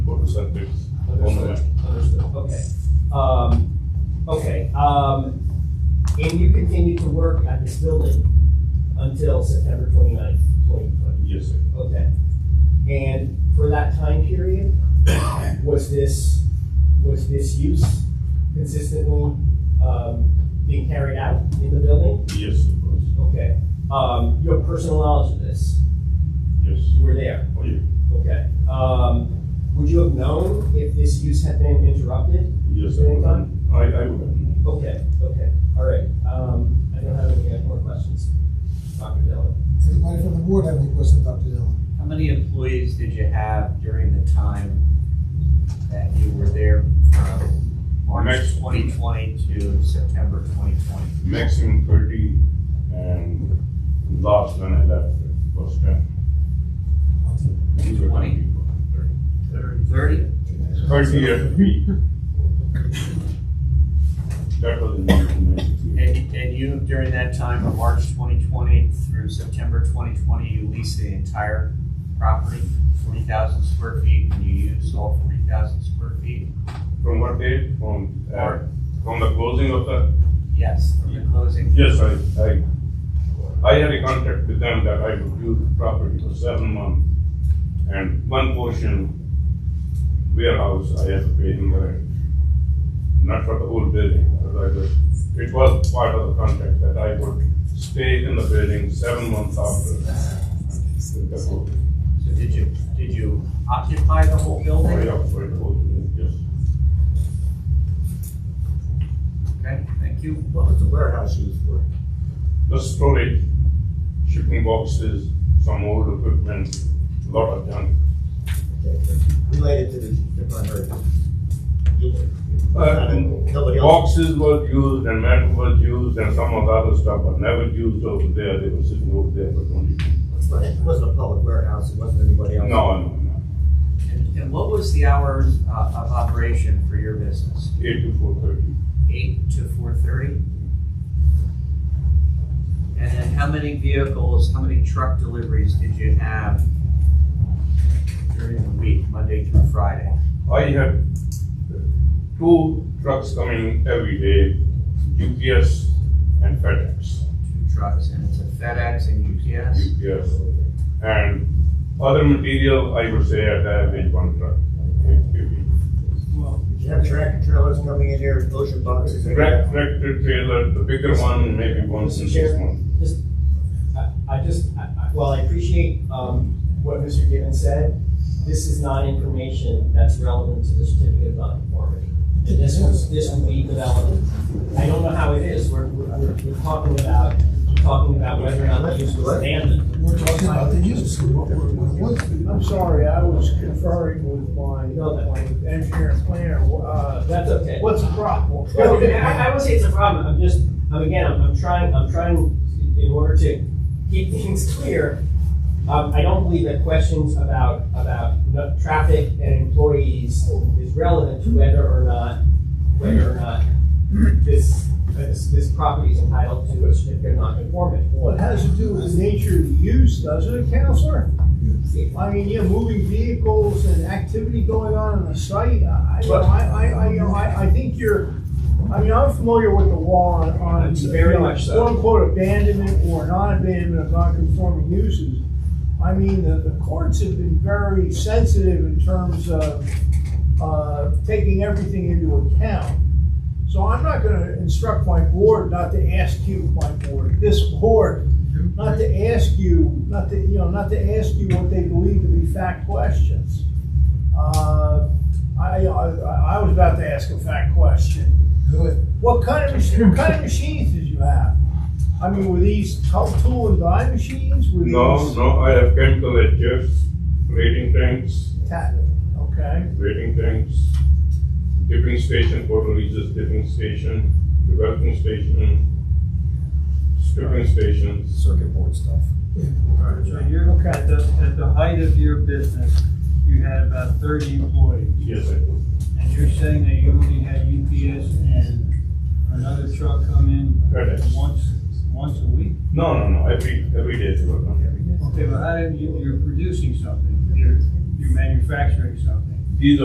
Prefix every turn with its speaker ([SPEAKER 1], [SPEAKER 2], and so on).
[SPEAKER 1] percent due on the map.
[SPEAKER 2] Understood, understood, okay. Um, okay, um, and you continue to work at this building until September twenty-ninth, twenty twenty?
[SPEAKER 1] Yes, sir.
[SPEAKER 2] Okay. And for that time period, was this, was this use consistently, um, being carried out in the building?
[SPEAKER 1] Yes, sir.
[SPEAKER 2] Okay. Um, you have personal knowledge of this,
[SPEAKER 1] Yes.
[SPEAKER 2] you were there?
[SPEAKER 1] Oh, yeah.
[SPEAKER 2] Okay. Um, would you have known if this use had been interrupted?
[SPEAKER 1] Yes, sir.
[SPEAKER 2] Anytime?
[SPEAKER 1] I, I would.
[SPEAKER 2] Okay, okay, all right. Um, I don't have any more questions. Dr. Dillon?
[SPEAKER 3] Anybody from the uh, board have any questions, Dr. Dillon?
[SPEAKER 4] How many employees did you have during the time that you were there from March
[SPEAKER 1] Next.
[SPEAKER 4] twenty twenty to September twenty twenty?
[SPEAKER 1] Maximum thirty and last when I left was ten. These were
[SPEAKER 4] 20?
[SPEAKER 1] 10 people.
[SPEAKER 4] Thirty?
[SPEAKER 1] Thirty at week. That was in nineteen ninety-three.
[SPEAKER 4] And, and you, during that time of March twenty twenty through September twenty twenty, you leased the entire property, forty thousand square feet, and you used all forty thousand square feet?
[SPEAKER 1] From what date? From, uh, from the closing of the
[SPEAKER 4] Yes, from the closing?
[SPEAKER 1] Yes, I, I, I had a contract with them that I would use the property for seven months. And one portion warehouse, I had to pay him the rent. Not for the whole building, but I was- it was part of the contract that I would stay in the building seven months after. the whole-
[SPEAKER 4] So did you, did you occupy the whole building?
[SPEAKER 1] Right up for the whole building, yes.
[SPEAKER 4] Okay, thank you.
[SPEAKER 5] What was the warehouse used for?
[SPEAKER 1] The storage, shipping boxes, some old equipment, lot of junk.
[SPEAKER 5] Related to the, if I heard.
[SPEAKER 1] Uh, and
[SPEAKER 5] Nobody else?
[SPEAKER 1] Boxes were used and metal was used and some of the other stuff was never used over there, they were sitting over there for twenty.
[SPEAKER 5] But it wasn't a public warehouse, it wasn't anybody
[SPEAKER 1] No,
[SPEAKER 5] else.
[SPEAKER 1] no, no,
[SPEAKER 4] And and what was the hours uh, of operation for your business?
[SPEAKER 1] eight to four thirty,
[SPEAKER 4] Eight to four thirty? And then how many vehicles, how many truck deliveries did you have during the week, Monday through Friday?
[SPEAKER 1] I had two trucks coming every day, UPS and FedEx,
[SPEAKER 4] Two trucks, and it's a FedEx and UPS?
[SPEAKER 1] UPS. And other material, I would say at average one truck. every week.
[SPEAKER 5] Did you have tractor trailers coming in here, ocean boxes? and-
[SPEAKER 1] Trac- Tractor trailer, the bigger one, maybe once in six months.
[SPEAKER 2] Just, I, I just, I, I, while I appreciate, um, what Mr. Given said, this is not information that's relevant to the certificate of nonconformity. And this was, this would be developed. I don't know how it is, we're, we're, we're we're talking about, talking about whether or not the use was abandoned.
[SPEAKER 3] We're talking about the use, what we're, what we're-
[SPEAKER 6] I'm sorry, I was conferring with my, my engineer and planner, uh,
[SPEAKER 2] That's okay.
[SPEAKER 6] what's the problem?
[SPEAKER 2] No, I, I would say it's a problem, I'm just, I'm again, I'm, I'm trying, I'm trying, in order to keep things clear, um, I don't believe that questions about, about n- traffic and employees is relevant to whether or not, whether or not this, this, this property is entitled to a certificate of nonconformity.
[SPEAKER 6] Well, it has to do with the nature of the use, doesn't it, counselor? I mean, you have moving vehicles and activity going on on the site, I, I- you know, I, I, I, you know, I, I think you're, I mean, I'm familiar with the law on, on.
[SPEAKER 2] Very much so.
[SPEAKER 6] Quote unquote abandonment or non-abandonment of non-conforming uses. I mean, the, the courts have been very sensitive in terms of, uh, taking everything into account. So I'm not gonna instruct my board not to ask you, my board, this board, not to ask you, not to, you know, not to ask you what they believe to be fact questions. Uh, I, I, I was about to ask a fact question.
[SPEAKER 3] do it.
[SPEAKER 6] What kind of, mach- what kind of machines did you have? I mean, were these tool- tool and die machines? Were
[SPEAKER 1] No,
[SPEAKER 6] these
[SPEAKER 1] no, I have chemical edgers, rating tanks,
[SPEAKER 6] ta- Okay,
[SPEAKER 1] waiting tanks, dipping station, Port Eliza's dipping station, developing station, stripping stations.
[SPEAKER 5] Circuit board stuff.
[SPEAKER 7] So you're,
[SPEAKER 6] Okay.
[SPEAKER 7] at the, at the height of your business, you had about thirty employees,
[SPEAKER 1] Yes, I do.
[SPEAKER 7] and you're saying that you only had UPS and another truck come in
[SPEAKER 1] FedEx.
[SPEAKER 7] once, once a week?
[SPEAKER 1] No, no, no, every, every day they were coming.
[SPEAKER 7] Okay, but how do you, you're producing something, you're, you're manufacturing something.